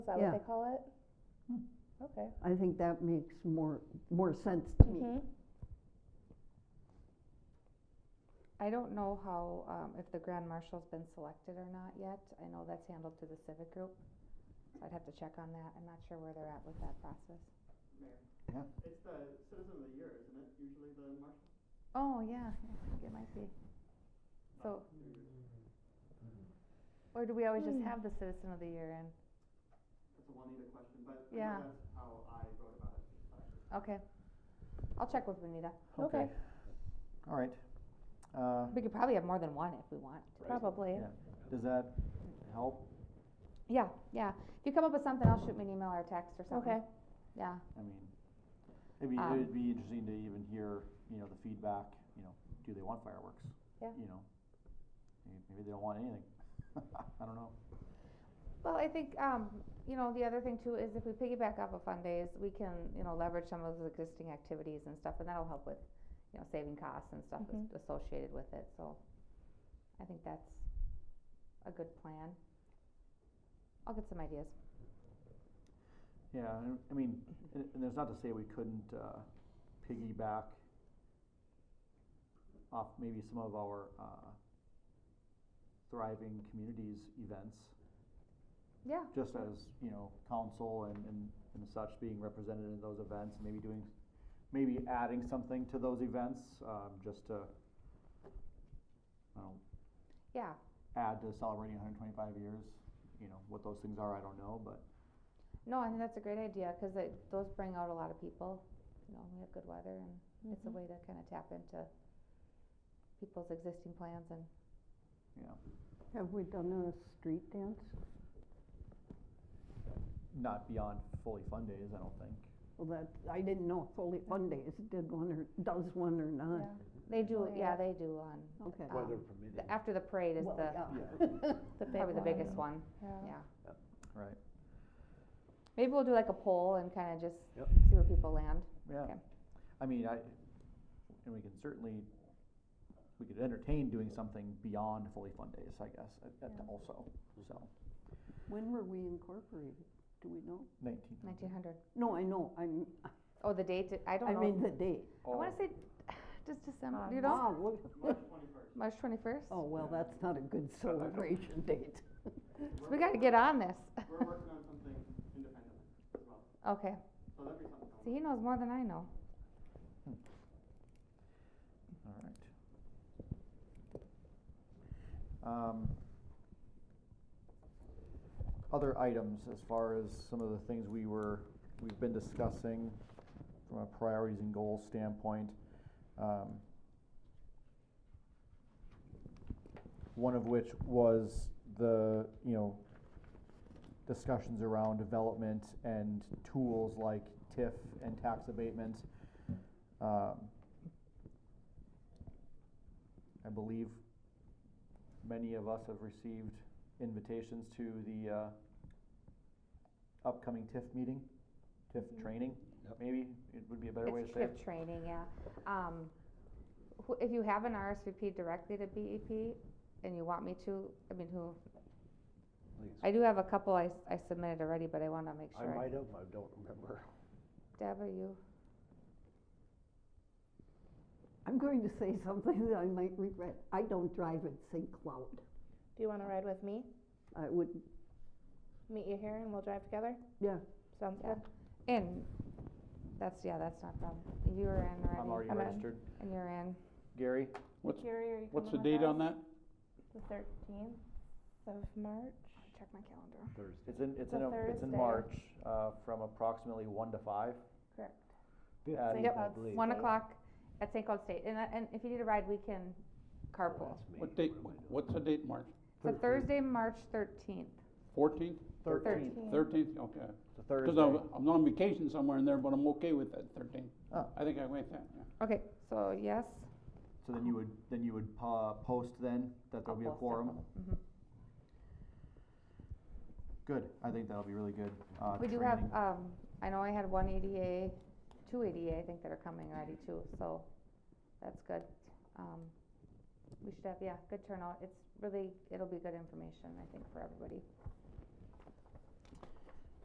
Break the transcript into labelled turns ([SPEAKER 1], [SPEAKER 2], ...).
[SPEAKER 1] that
[SPEAKER 2] Yeah.
[SPEAKER 1] what they call it?
[SPEAKER 2] Hmm.
[SPEAKER 1] Okay.
[SPEAKER 2] I think that makes more, more sense to
[SPEAKER 3] Hmm.
[SPEAKER 2] me.
[SPEAKER 1] Mhm.
[SPEAKER 3] I don't know how, um, if the grand marshal's been selected or not yet. I know that's handled through the civic group. So I'd have to check on that. I'm not sure where they're at with that process.
[SPEAKER 4] Mayor.
[SPEAKER 5] Yeah.
[SPEAKER 4] It's the citizen of the year, isn't it, usually the marshal?
[SPEAKER 3] Oh, yeah, I think it might be. So, or do we always just
[SPEAKER 1] Hmm.
[SPEAKER 3] have the citizen of the year in?
[SPEAKER 4] That's a Juanita question, but I
[SPEAKER 3] Yeah.
[SPEAKER 4] know that's how I wrote about it.
[SPEAKER 3] Okay. I'll check with Benita.
[SPEAKER 1] Okay.
[SPEAKER 5] All right. Uh,
[SPEAKER 3] We could probably have more than one if we want.
[SPEAKER 1] Probably.
[SPEAKER 5] Yeah. Does that help?
[SPEAKER 3] Yeah, yeah. If you come up with something, I'll shoot me an email or a text or something.
[SPEAKER 1] Okay.
[SPEAKER 3] Yeah,
[SPEAKER 5] I mean, it'd be,
[SPEAKER 3] Um,
[SPEAKER 5] it'd be interesting to even hear, you know, the feedback, you know, do they want fireworks?
[SPEAKER 3] Yeah.
[SPEAKER 5] You know, Maybe- maybe they don't want anything. I don't know.
[SPEAKER 3] well, I think, um, you know, the other thing too is if we piggyback off of fun days, we can, you know, leverage some of those existing activities and stuff, and that'll help with, you know, saving costs and stuff as- associated with it, so. I think that's a good plan. I'll get some ideas.
[SPEAKER 5] Yeah, and- I mean, and, and there's not to say we couldn't, uh, piggyback off maybe some of our, uh, thriving communities events,
[SPEAKER 3] Yeah,
[SPEAKER 5] just as, you know, council and, and, and such being represented in those events, maybe doing, maybe adding something to those events, um, just to, I don't know,
[SPEAKER 3] yeah,
[SPEAKER 5] add to celebrating hundred and twenty-five years, you know, what those things are, I don't know, but
[SPEAKER 3] no, I think that's a great idea, cause it, those bring out a lot of people, you know, we have good weather and it's a
[SPEAKER 1] Mhm.
[SPEAKER 3] way to kinda tap into people's existing plans and Mm-hmm.
[SPEAKER 2] Have we done a street dance?
[SPEAKER 5] not beyond fully fun days, I don't think.
[SPEAKER 2] Well, that, I didn't know if Foley Fun Days did one or, does one or not.
[SPEAKER 3] They do,
[SPEAKER 1] Oh,
[SPEAKER 3] yeah,
[SPEAKER 1] yeah.
[SPEAKER 3] they do on,
[SPEAKER 2] Okay.
[SPEAKER 3] um, the, after the parade is
[SPEAKER 2] Well,
[SPEAKER 3] the,
[SPEAKER 2] yeah.
[SPEAKER 1] The big
[SPEAKER 3] probably the
[SPEAKER 1] one.
[SPEAKER 3] biggest one,
[SPEAKER 1] Yeah.
[SPEAKER 3] yeah.
[SPEAKER 5] Right.
[SPEAKER 3] Maybe we'll do like a poll and kinda just
[SPEAKER 5] Yep.
[SPEAKER 3] see where people land.
[SPEAKER 5] Yeah,
[SPEAKER 3] Okay.
[SPEAKER 5] I mean, I, and we can certainly, we could entertain doing something beyond fully fun days, I guess, at, at
[SPEAKER 3] Yeah.
[SPEAKER 5] also, so,
[SPEAKER 2] When were we incorporated? Do we know?
[SPEAKER 5] nineteen.
[SPEAKER 3] Nineteen hundred.
[SPEAKER 2] No, I know, I'm,
[SPEAKER 3] Oh, the date, I don't
[SPEAKER 2] I
[SPEAKER 3] know.
[SPEAKER 2] mean the date.
[SPEAKER 3] I
[SPEAKER 5] Oh.
[SPEAKER 3] wanna say, just December, you know,
[SPEAKER 2] Ah, look,
[SPEAKER 4] March twenty-first,
[SPEAKER 3] March twenty-first.
[SPEAKER 2] oh, well, that's not a good celebration date.
[SPEAKER 3] So we gotta get on this,
[SPEAKER 4] we're working on something independently as well,
[SPEAKER 3] okay,
[SPEAKER 4] so that'd be something.
[SPEAKER 3] so he knows more than I know.
[SPEAKER 5] All right. Um, Other items as far as some of the things we were, we've been discussing from a priorities and goals standpoint. um, One of which was the, you know, discussions around development and tools like TIF and tax abatement. Um, I believe many of us have received invitations to the uh, upcoming TIF meeting, TIF training, maybe, it would be a better way to
[SPEAKER 3] It's
[SPEAKER 5] say it.
[SPEAKER 3] trip training, yeah. Um, who, if you have an RSVP directly to BEP and you want me to, I mean, who? I do have a couple I, s- I submitted already, but I wanna make
[SPEAKER 6] I
[SPEAKER 3] sure.
[SPEAKER 6] might have, I don't remember.
[SPEAKER 3] Deb, are you?
[SPEAKER 2] I'm going to say something that I might regret. I don't drive at St. Cloud.
[SPEAKER 1] Do you want to ride with me?
[SPEAKER 2] I would,
[SPEAKER 1] Meet you here and we'll drive together?
[SPEAKER 2] Yeah.
[SPEAKER 1] Sounds
[SPEAKER 3] Yeah.
[SPEAKER 1] good.
[SPEAKER 3] In, that's, yeah, that's not a problem. You're in
[SPEAKER 5] I'm
[SPEAKER 3] already,
[SPEAKER 5] already
[SPEAKER 1] I'm in.
[SPEAKER 5] registered.
[SPEAKER 3] and you're in.
[SPEAKER 5] Gary?
[SPEAKER 7] What's-
[SPEAKER 1] Gary, are you
[SPEAKER 7] What's the
[SPEAKER 1] coming with
[SPEAKER 7] date on
[SPEAKER 1] us?
[SPEAKER 7] that?
[SPEAKER 1] The thirteenth of March.
[SPEAKER 3] Check my calendar.
[SPEAKER 6] Thursday.
[SPEAKER 5] It's in, it's
[SPEAKER 1] The
[SPEAKER 5] in, a- it's in
[SPEAKER 1] Thursday.
[SPEAKER 5] March, uh, from approximately one to five.
[SPEAKER 1] Correct.
[SPEAKER 5] At-
[SPEAKER 1] St.
[SPEAKER 3] Yep.
[SPEAKER 1] Cloud
[SPEAKER 6] Probably.
[SPEAKER 3] One
[SPEAKER 1] State.
[SPEAKER 3] o'clock at St. Cloud State, and, that- and if you need a ride, we can carpool.
[SPEAKER 7] What date, what's the date, March
[SPEAKER 3] So Thursday, March thirteenth,
[SPEAKER 7] fourteenth,
[SPEAKER 5] Thirteenth,
[SPEAKER 1] Thirteenth.
[SPEAKER 7] thirteenth, okay.
[SPEAKER 5] it's a
[SPEAKER 7] Because
[SPEAKER 5] Thursday.
[SPEAKER 7] I'm, I'm on vacation somewhere in there, but I'm okay with that, thirteenth.
[SPEAKER 5] Oh.
[SPEAKER 7] I think I went that, yeah.
[SPEAKER 3] okay, so yes.
[SPEAKER 5] So then you would, then you would, uh, post then, that
[SPEAKER 3] I'll
[SPEAKER 5] there'll be a
[SPEAKER 3] post it.
[SPEAKER 5] quorum?
[SPEAKER 3] Mhm.
[SPEAKER 5] Good, I think that'll be really good, uh,
[SPEAKER 3] We do
[SPEAKER 5] training.
[SPEAKER 3] have, um, I know I had one ADA, two ADA, I think that are coming already too, so that's good. Um, we should have, yeah, good turnout, it's really, it'll be good information, I think, for everybody.